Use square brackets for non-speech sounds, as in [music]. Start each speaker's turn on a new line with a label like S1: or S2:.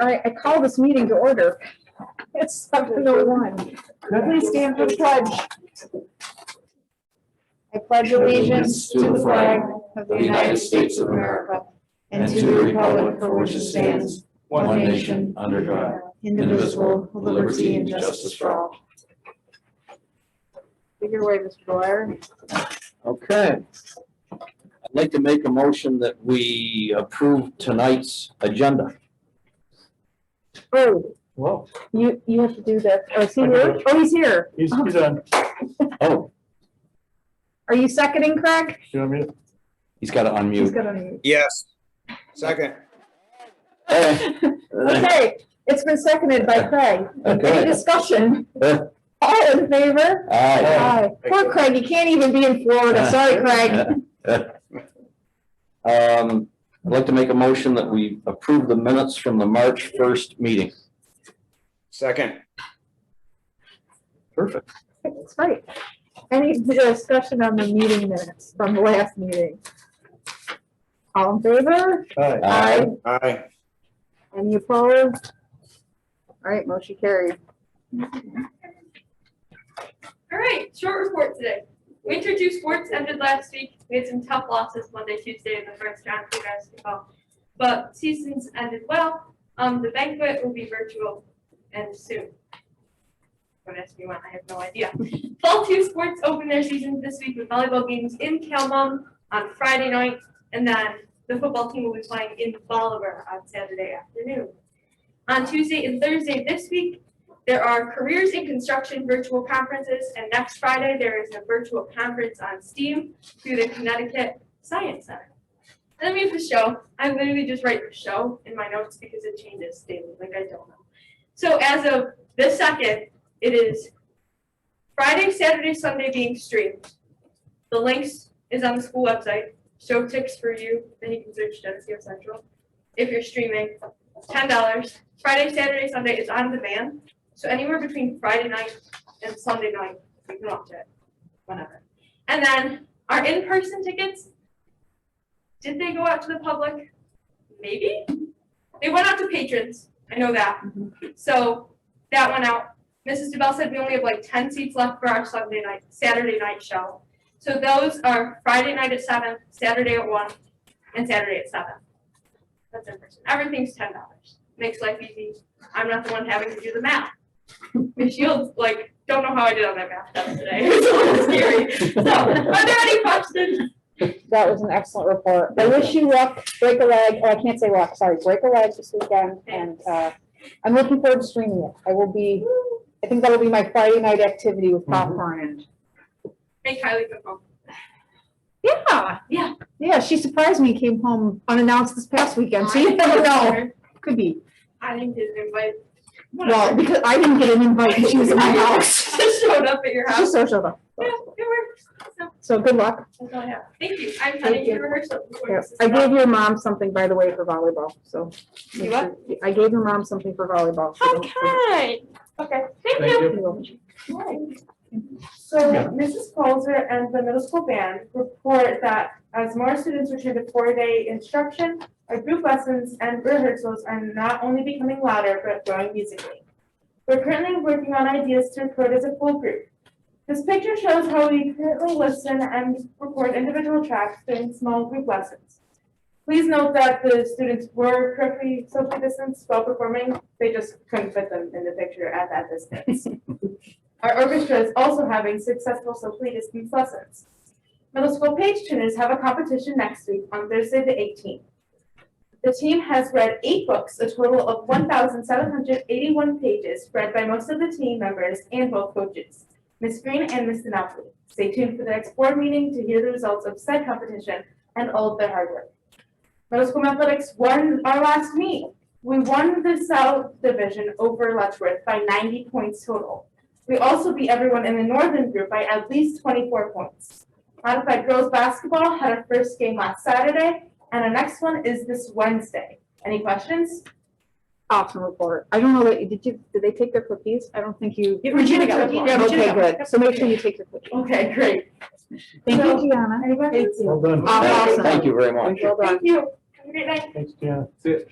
S1: I, I call this meeting to order. It's seven oh one. Please stand for the pledge. I pledge allegiance to the flag of the United States of America and to the republic for which it stands,
S2: one nation, under God,
S1: indivisible, with liberty and justice for all. Your way, Mr. Dwyer.
S2: Okay. I'd like to make a motion that we approve tonight's agenda.
S1: Oh,
S3: Well,
S1: you, you have to do this. Oh, is he here? Oh, he's here.
S3: he's, he's on.
S2: Oh,
S1: Are you seconding, Craig?
S3: You want me to?
S2: he's got to
S1: He's
S2: unmute.
S1: gonna.
S4: Yes. Second.
S2: Hey.
S1: [laughs] Okay, it's been seconded by Craig. Any
S2: Okay.
S1: discussion?
S2: Eh.
S1: All in favor?
S2: All
S1: Aye. Poor Craig, you can't even be in Florida. Sorry, Craig.
S2: right. [laughs] Um, I'd like to make a motion that we approve the minutes from the March first meeting.
S4: Second.
S2: Perfect.
S1: That's right. Any discussion on the meeting minutes from the last meeting? All in favor?
S3: All right,
S2: Aye.
S4: Aye.
S1: Any opposed? All right, motion carried.
S5: All right, short report today. Winter two sports ended last week. We had some tough losses Monday, Tuesday in the first round for basketball. But seasons ended well. Um, the banquet will be virtual and soon. Don't ask me when, I have no idea. [laughs] Fall two sports open their seasons this week with volleyball games in Calmon on Friday night. And then the football team will be playing in Bolivar on Saturday afternoon. On Tuesday and Thursday this week, there are Careers in Construction virtual conferences, and next Friday, there is a virtual conference on STEAM through the Connecticut Science Center. And then we have the show. I literally just write the show in my notes because it changes daily, like I don't know. So as of the second, it is Friday, Saturday, Sunday being streamed. The links is on the school website, show ticks for you, then you can search Geneseo Central. If you're streaming, ten dollars. Friday, Saturday, Sunday is on demand. So anywhere between Friday night and Sunday night, you can watch it, whenever. And then our in-person tickets, did they go out to the public? Maybe? They went out to patrons, I know that. So that went out. Mrs. DeBell said we only have like ten seats left for our Sunday night, Saturday night show. So those are Friday night at seven, Saturday at one, and Saturday at seven. That's in person. Everything's ten dollars. Makes life easy. I'm not the one having to do the math. Miss Shields, like, don't know how I did on that math test today. [laughs] It's a little scary.
S1: [laughs]
S5: So, are there any questions?
S1: That was an excellent report. I wish you luck, break a leg, oh, I can't say walk, sorry, break a leg this weekend. And, uh, I'm looking forward to streaming it. I will be, I think that'll be my Friday night activity
S5: Mm-hmm.
S1: with popcorn and.
S5: Make Kylie come home.
S1: Yeah.
S5: Yeah.
S1: Yeah, she surprised me, came home unannounced this past weekend, so [laughs] you never know. Could be.
S5: I didn't get an invite.
S1: Well, [laughs] because I didn't get an invite and she was in
S5: [laughs]
S1: my house.
S5: Just showed up at your
S1: She's
S5: house.
S1: social though.
S5: Yeah, it works. So,
S1: So good luck.
S5: that's all I have. Thank you. I'm
S1: Thank
S5: heading to
S1: you.
S5: rehearsal. before
S1: Yeah.
S5: this is
S1: I gave
S5: done.
S1: your mom something, by the way, for volleyball, so.
S5: You what?
S1: I gave your mom something for volleyball. so don't-
S5: Okay. Okay, thank
S3: Thank
S5: you.
S1: You're welcome.
S6: So Mrs. Colzer and the middle school band report that as more students return to four-day instruction, our group lessons and rehearsals are not only becoming louder but growing musically. We're currently working on ideas to record as a full group. This picture shows how we currently listen and record individual tracks during small group lessons. Please note that the students were correctly socially distanced while performing, they just couldn't fit them in the picture at that distance. Our orchestra is also having successful socially distanced lessons. Middle school page tuners have a competition next week on Thursday, the eighteenth. The team has read eight books, a total of one thousand seven hundred eighty-one pages, read by most of the team members and both coaches, Ms. Green and Ms. Denali. Stay tuned for the next board meeting to hear the results of said competition and all of their hard work. Middle school athletics won our last meet. We won the South Division over Letchworth by ninety points total. We also beat everyone in the northern group by at least twenty-four points. Modified girls basketball had our first game last Saturday, and our next one is this Wednesday. Any questions?
S1: Awesome report. I don't know that, did you, did they take their cookies? I don't think you.
S6: Yeah, Regina got one.
S1: Yeah, Okay,
S6: Regina got
S1: good. So make sure you take your cookies.
S6: Okay, great.
S1: Thank
S6: So-
S1: you, Gianna.
S6: Any questions?
S3: well done.
S1: Awesome.
S2: Thank you very much.
S1: Well done.
S6: Thank you.
S5: Have a great night.
S3: Thanks, Deanna.